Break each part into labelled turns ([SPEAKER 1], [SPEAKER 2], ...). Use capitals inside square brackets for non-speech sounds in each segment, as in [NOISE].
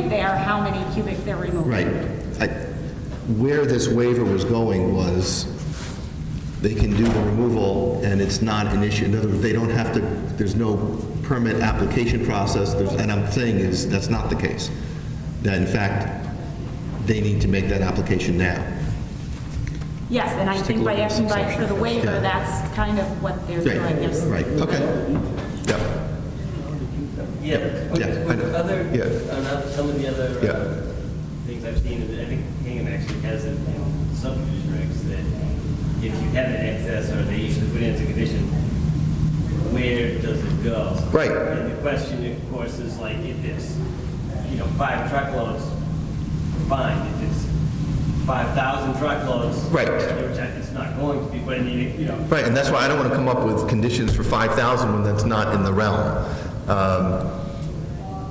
[SPEAKER 1] there how many cubic they're removing.
[SPEAKER 2] Right. I- Where this waiver was going was, they can do the removal, and it's not an issue. In other words, they don't have to, there's no permit application process, There's- and I'm saying is, that's not the case. That in fact, they need to make that application now.
[SPEAKER 1] Yes, and I think by asking by, for the waiver,
[SPEAKER 2] Yeah.
[SPEAKER 1] that's kind of what they're doing.
[SPEAKER 2] Right,
[SPEAKER 1] There's-
[SPEAKER 2] right, okay. Yep.
[SPEAKER 3] Yeah,
[SPEAKER 2] yeah,
[SPEAKER 3] with-
[SPEAKER 2] I
[SPEAKER 3] with
[SPEAKER 2] know.
[SPEAKER 3] other,
[SPEAKER 2] Yeah.
[SPEAKER 3] on oth- some of the other uh,
[SPEAKER 2] Yeah.
[SPEAKER 3] things I've seen, I think Hingham actually has it in subdivision regs that if you have an excess or they usually put it as a condition, where does it go?
[SPEAKER 2] Right.
[SPEAKER 3] And the question, of course, is like if it's, you know, five truckloads, fine. If it's 5,000 truckloads.
[SPEAKER 2] Right.
[SPEAKER 3] Which I- it's not going to be, but I mean, you know,
[SPEAKER 2] Right, and that's why I don't want to come up with conditions for 5,000 when that's not in the realm. Um,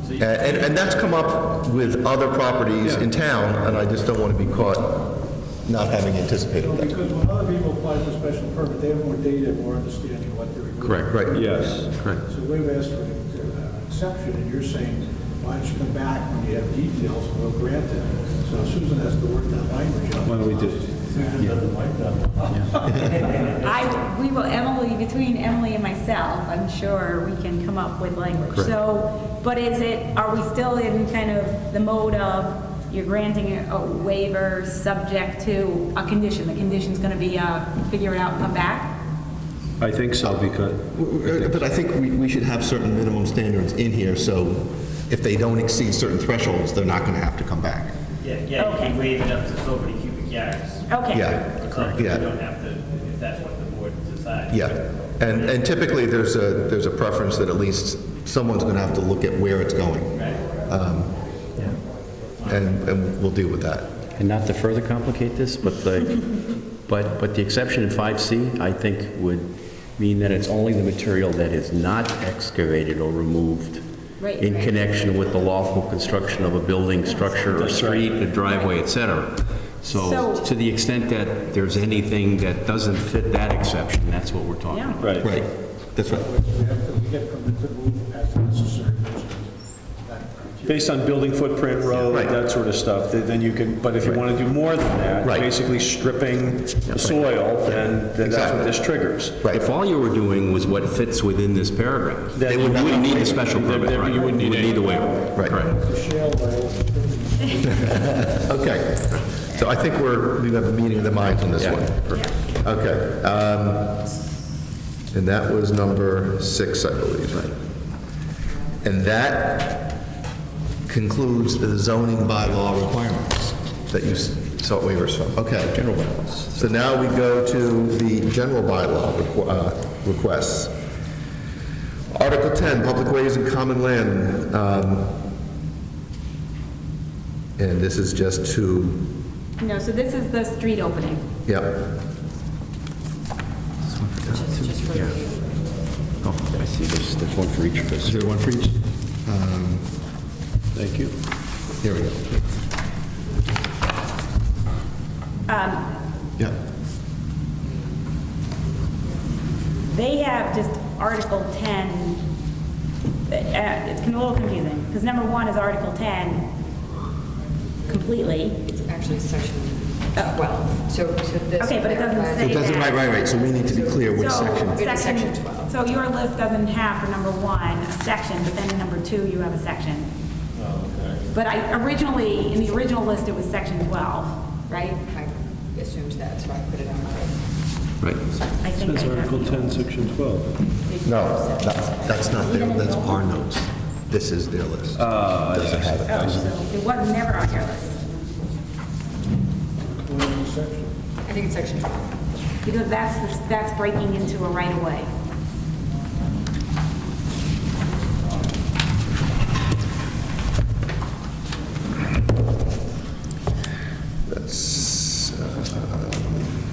[SPEAKER 3] so you
[SPEAKER 2] And, and that's come up with other properties in town, and I just don't want to be caught not having anticipated that.
[SPEAKER 4] Because when other people apply for special permit, they have more data, more understanding of what they're doing.
[SPEAKER 5] Correct.
[SPEAKER 2] Right,
[SPEAKER 5] Yes. Correct.
[SPEAKER 4] So we've asked for an uh, exception, and you're saying, why don't you come back when you have details, and we'll grant it. So Susan has to work that language out.
[SPEAKER 5] Why don't we just-
[SPEAKER 4] Susan doesn't like that.
[SPEAKER 1] I, we will, Emily, between Emily and myself, I'm sure we can come up with language. So, but is it, are we still in kind of the mode of you're granting a waiver subject to a condition? The condition's going to be, uh, figure it out, and come back?
[SPEAKER 5] I think so, because,
[SPEAKER 2] Uh, But I think we, we should have certain minimum standards in here, so if they don't exceed certain thresholds, they're not going to have to come back.
[SPEAKER 3] Yeah, yeah, you can waive it up to so many cubic yards.
[SPEAKER 1] Okay.
[SPEAKER 2] Yeah,
[SPEAKER 3] Or something, you
[SPEAKER 2] yeah.
[SPEAKER 3] don't have to, if that's what the board decides.
[SPEAKER 2] yeah. And, and typically, there's a, there's a preference that at least someone's going to have to look at where it's going. Um, And, and we'll deal with that.
[SPEAKER 6] And not to further complicate this, but
[SPEAKER 1] [LAUGHS]
[SPEAKER 6] the, but, but the exception in 5C, I think, would mean that it's only the material that is not excavated or removed
[SPEAKER 1] Right,
[SPEAKER 6] in
[SPEAKER 1] right.
[SPEAKER 6] connection with the lawful construction of a building, structure, or street, a driveway, et cetera.
[SPEAKER 1] So-
[SPEAKER 6] So to the extent that there's anything that doesn't fit that exception, that's what we're talking
[SPEAKER 1] Yeah.
[SPEAKER 6] about.
[SPEAKER 5] right.
[SPEAKER 2] Right, that's right.
[SPEAKER 4] We have to, we get permit to move as necessary. That criteria.
[SPEAKER 5] Based on building footprint, road,
[SPEAKER 2] Right.
[SPEAKER 5] that sort of stuff, th- then you can, but if you want to do more than that,
[SPEAKER 2] Right.
[SPEAKER 5] basically stripping the soil, then then that's
[SPEAKER 2] Exactly.
[SPEAKER 5] what this triggers.
[SPEAKER 2] Right.
[SPEAKER 6] If all you were doing was what fits within this paragraph,
[SPEAKER 5] Then
[SPEAKER 6] then
[SPEAKER 5] you
[SPEAKER 6] you wouldn't
[SPEAKER 5] wouldn't
[SPEAKER 6] need
[SPEAKER 5] need
[SPEAKER 6] a special
[SPEAKER 5] it. Then-
[SPEAKER 6] permit,
[SPEAKER 5] then
[SPEAKER 6] right?
[SPEAKER 5] you wouldn't need
[SPEAKER 6] You
[SPEAKER 5] it.
[SPEAKER 6] would need a waiver.
[SPEAKER 2] Right.
[SPEAKER 6] Correct.
[SPEAKER 4] The shale oil,
[SPEAKER 2] Okay, so I think we're, we have a meeting of the minds on this one. Okay. um, And that was number six, I believe. And that concludes the zoning bylaw requirements that you sought waivers from. Okay. General bylaws. So now we go to the general bylaw requ- uh, requests. Article 10, public ways and common land. um, And this is just to
[SPEAKER 1] No, so this is the street opening.
[SPEAKER 2] Yep.
[SPEAKER 6] Oh, I see, there's, there's one for each of us.
[SPEAKER 2] there one for each? Thank you. Here we go. Yep.
[SPEAKER 1] They have just Article 10, uh, it's a little confusing, because number one is Article 10 completely,
[SPEAKER 7] It's actually section
[SPEAKER 1] Oh.
[SPEAKER 7] 12, so, so this.
[SPEAKER 1] Okay, but it doesn't
[SPEAKER 7] clarifies-
[SPEAKER 1] say It doesn't-
[SPEAKER 2] right, right, right, so we need to be clear which
[SPEAKER 1] So,
[SPEAKER 2] section.
[SPEAKER 7] It's section 12.
[SPEAKER 1] So your list doesn't have for number one, a section, but then in number two, you have a section. But I, originally, in the original list, it was section 12, right?
[SPEAKER 7] I assumed that, so I put it on.
[SPEAKER 6] Right.
[SPEAKER 1] I think I have.
[SPEAKER 5] 10, section 12.
[SPEAKER 2] No, that's that's not their, that's our notes. This is their list. Doesn't have it.
[SPEAKER 1] Oh, so It was never on your list,
[SPEAKER 4] clean section.
[SPEAKER 7] I think it's section 12.
[SPEAKER 1] because that's, the- that's breaking into a right-of-way.
[SPEAKER 2] That's, uh,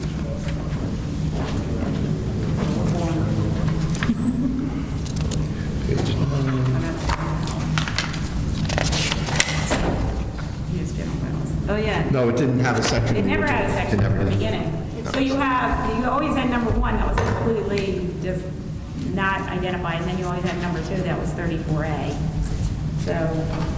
[SPEAKER 1] Yes, general bylaws. Oh, yeah.
[SPEAKER 2] No, it didn't have a section.
[SPEAKER 1] It
[SPEAKER 2] in the
[SPEAKER 1] never had a
[SPEAKER 2] original.
[SPEAKER 1] section
[SPEAKER 2] It
[SPEAKER 1] at
[SPEAKER 2] never
[SPEAKER 1] the
[SPEAKER 2] did.
[SPEAKER 1] beginning. So you have, you always had number one that was completely just not identified, and then you always had number two that was 34A. So